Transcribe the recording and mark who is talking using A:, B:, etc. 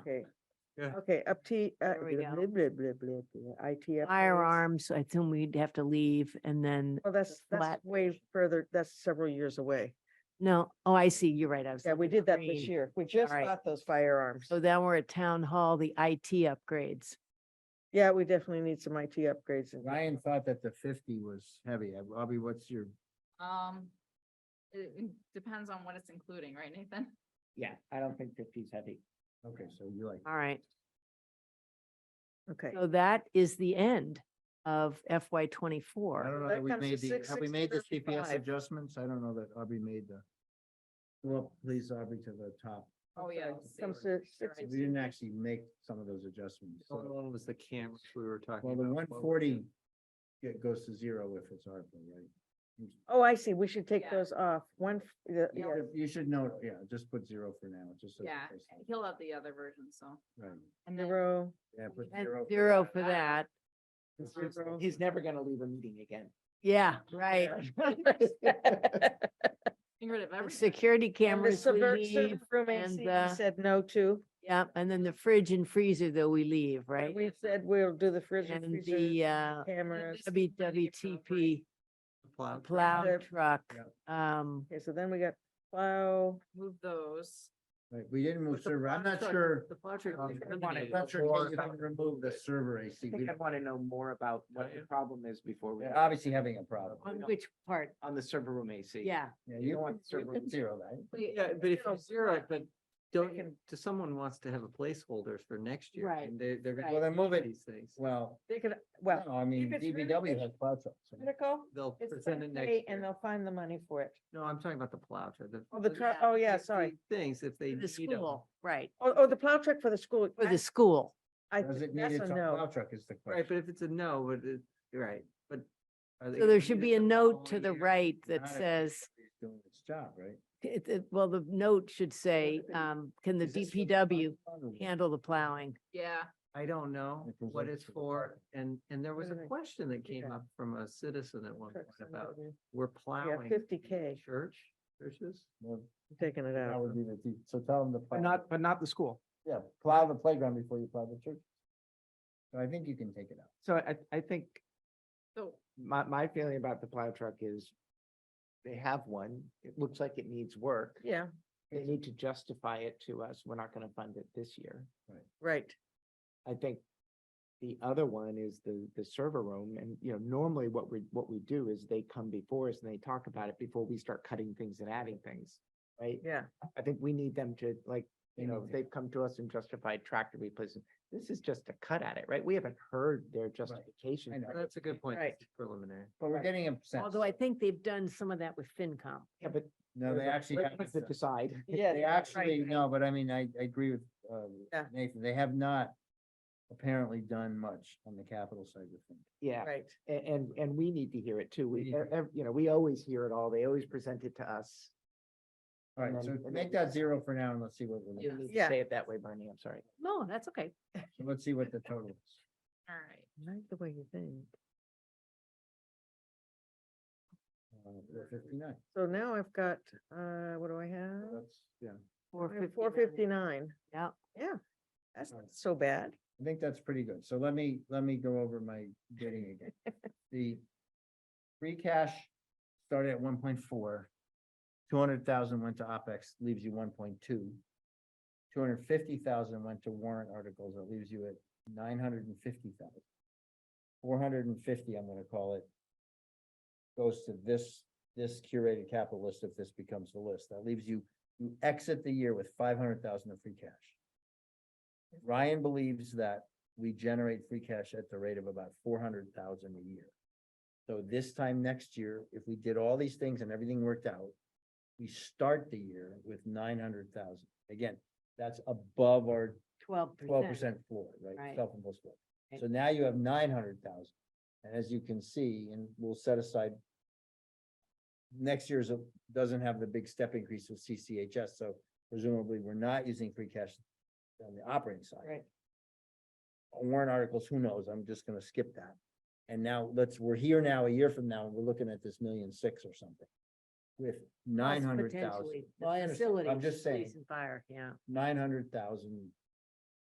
A: okay.
B: Yeah.
A: Okay, up T, uh,
C: There we
A: blah,
C: go.
A: blah, blah, blah, blah, IT. upgrades.
C: Firearms, I assume we'd have to leave and then,
A: Well, that's, that's
C: flat.
A: way further, that's several years away.
C: no, oh, I see, you're right. I was.
A: Yeah, we
C: looking at
A: did that this
C: green.
A: year. We just
C: right.
A: bought those firearms.
C: So then we're at town hall, the IT upgrades.
A: Yeah, we definitely need some IT upgrades. in here.
B: Ryan thought that the fifty was heavy. Uh, Robbie, what's your?
D: Um, it it depends on what it's including, right, Nathan?
E: Yeah, I don't think fifty's heavy.
B: Okay, so you like.
C: All right.
A: Okay.
C: So that is the end of FY
B: I
C: twenty-four.
B: don't know
A: that
B: that we
A: comes to
B: made the, have we made the CPS
A: 665.
B: adjustments? I don't know that Aubrey made the. Well, please, Aubrey, to the top.
D: Oh,
A: Okay,
D: yeah. let's see.
A: comes
D: Sure,
A: to six-
D: I
B: We
D: see.
B: didn't actually make some of those adjustments. so-
F: One was the cameras we were talking
B: Well,
F: about.
B: the one
F: What was
B: forty
F: it?
B: goes to zero if it's ARPA, right?
A: Oh, I see. We should take
D: Yeah.
A: those off. One, f- the-
D: Yeah.
A: yeah,
B: You should note, yeah, just put zero for now, just. so-
D: Yeah, he'll have the other version, so.
B: Right,
D: And then,
A: zero.
B: yeah, put
C: And
B: zero. for
C: zero
B: that.
C: for that.
A: zero.
E: He's never gonna leave a meeting again.
C: Yeah, right.
D: getting rid of
C: The
D: everything.
C: Security
A: And the
C: cameras we
A: subvert-
C: leave.
A: subrooming
C: and
A: seat we
C: the-
A: Said no to.
C: Yeah, and then the fridge and freezer though we leave, right?
A: We said we'll do the fridge and
C: And
A: freezer,
C: the uh
A: cameras.
D: this is where they can operate.
C: WWTP
F: Plow.
C: plow
A: The-
C: truck.
B: Yep.
C: Um,
A: Okay, so then we got plow.
D: Move those.
B: Right, we didn't move
E: the
B: server, I'm
E: plow
B: not
E: truck-
B: sure.
E: The plow truck
B: um,
E: is
B: I'm
E: eliminated
B: not sure
E: before-
B: how you can Remove the server
E: I
B: AC. We
E: think I
B: don't-
E: wanna know more about what the
F: Yeah.
E: problem is before we,
B: They're obviously having a problem.
C: on
E: don't-
C: which part?
E: on the server room AC.
C: Yeah,
B: Yeah, you
E: You
B: don't
E: want
B: want server
E: server-
B: zero, right?
F: Yeah, but if
A: know,
F: you zero it, but don't,
A: can-
F: you- to someone wants to have a placeholder for next year.
C: Right,
F: And they, they're gonna.
B: Well, then move it.
F: These things.
B: Well,
A: They could, well,
B: no, I mean,
A: it's
B: DBW has cloud trucks. so-
A: critical,
F: They'll
A: it's
F: present it next
A: okay,
F: year.
A: and they'll find the money for it.
F: No, I'm talking about the plow truck.
A: Oh, the
F: the-
A: truck,
D: yeah,
A: oh, yeah,
F: the-
A: sorry.
F: the Things if they
C: for the
F: need 'em.
C: school, right,
A: Oh, oh, the plow truck for the school.
C: for
A: I-
C: the school.
A: I,
B: Does it
A: think
B: need
A: that's
B: its
A: a
B: own
A: no.
B: plow truck is the
F: Right,
B: question.
F: but if it's a no, but it, right, but. are they
C: So there
F: gonna
C: should
F: need
C: be
F: it
C: a
F: the
C: note
F: following
C: to the
F: year?
C: right that
B: Not if
C: says,
B: it's Doing its job, right?
C: it, it- well, the note should say,
B: thing
C: um, can the
B: Is this for the
C: DPW
B: plow truck or what?
C: handle the plowing?
D: Yeah,
F: I don't know
B: It goes
F: what
B: up
F: it's
B: to the
F: for,
B: bottom.
F: and, and there was a
A: Doesn't it-
F: question that came
A: yeah.
F: up from a citizen at one point
A: Trucks and
F: about,
A: everything.
F: we're plowing.
A: 50K.
F: Church, churches?
B: Well,
A: I'm Taking it
B: That
A: out.
B: would be the, D- so tell them to. plow.
E: But not, but not the school.
B: Yeah, plow the playground before you plow the church. So I think you can take it out.
E: So I, I think
D: so
E: my, my feeling about the plow truck is they have one. It looks like it needs work.
A: Yeah,
E: They need to justify it to us. We're not gonna fund it this year.
A: right.
E: I think the other one is the, the server room and, you know, normally what we, what we do is they come before us and they talk about it before we start cutting things and adding things. Right?
A: Yeah.
E: I think we need them to like,
B: They
E: you know,
B: need to-
E: they've come to us and justified tractor replacement. This is just a cut at it, right? We haven't heard their justification.
B: know.
E: for it.
F: That's a good point,
A: Right.
F: this is preliminary.
B: But we're getting upset.
C: Although I think they've done some of that with FinCom.
E: Yeah, but.
B: No, they actually, have
E: To
B: it.
E: decide.
A: Yeah.
B: they
A: right,
B: actually,
A: right.
B: no, but I mean, I, I agree with, uh,
A: Yeah.
B: Nathan, they have not apparently done much on the capital side of things.
E: Yeah.
A: Right.
E: a- And, and we need to hear it too.
B: We
E: We,
B: need to
E: ev- ev- you know, we always hear it all. They always present it to us.
B: All right,
E: And
B: so
E: then- and
B: make
E: then-
B: that zero for now and let's see what, we're
E: You
B: looking-
E: need to
A: Yeah.
E: say it that way, Bernie. I'm sorry.
C: No, that's okay.
B: so let's see what the total is.
D: all right.
C: I like the way you think.
B: Uh, we're Fifty-nine,
A: So now I've got, uh, what do I
B: So
A: have?
B: that's, yeah,
C: Four
A: Four fifty-nine.
C: Yeah.
A: Yeah, that's
B: Right.
A: not so bad.
B: I think that's pretty good. So let me, let me go over my bidding again. The free cash started at one point four. Two hundred thousand went to OpEx, leaves you one point two. Two hundred fifty thousand went to warrant articles, that leaves you at nine hundred and fifty thousand. Four hundred and fifty, I'm gonna call it. Goes to this, this curated capital list if this becomes the list. That leaves you, you exit the year with five hundred thousand of free cash. Ryan believes that we generate free cash at the rate of about four hundred thousand a year. So this time next year, if we did all these things and everything worked out, we start the year with nine hundred thousand. Again, that's above our
C: Twelve
B: twelve
C: percent.
B: percent floor, right?
C: Right.
B: Self-imposed floor.
C: Right.
B: So now you have nine hundred thousand. And as you can see, and we'll set aside next year's uh, doesn't have the big step increase with CCHS, so presumably we're not using free cash on the operating side.
A: Right.
B: Warrant articles, who knows? I'm just gonna skip that. And now let's, we're here now, a year from now, and we're looking at this million six or something with nine hundred thousand.
C: Well, I
B: I'm just saying
C: Fire, yeah.
B: nine hundred thousand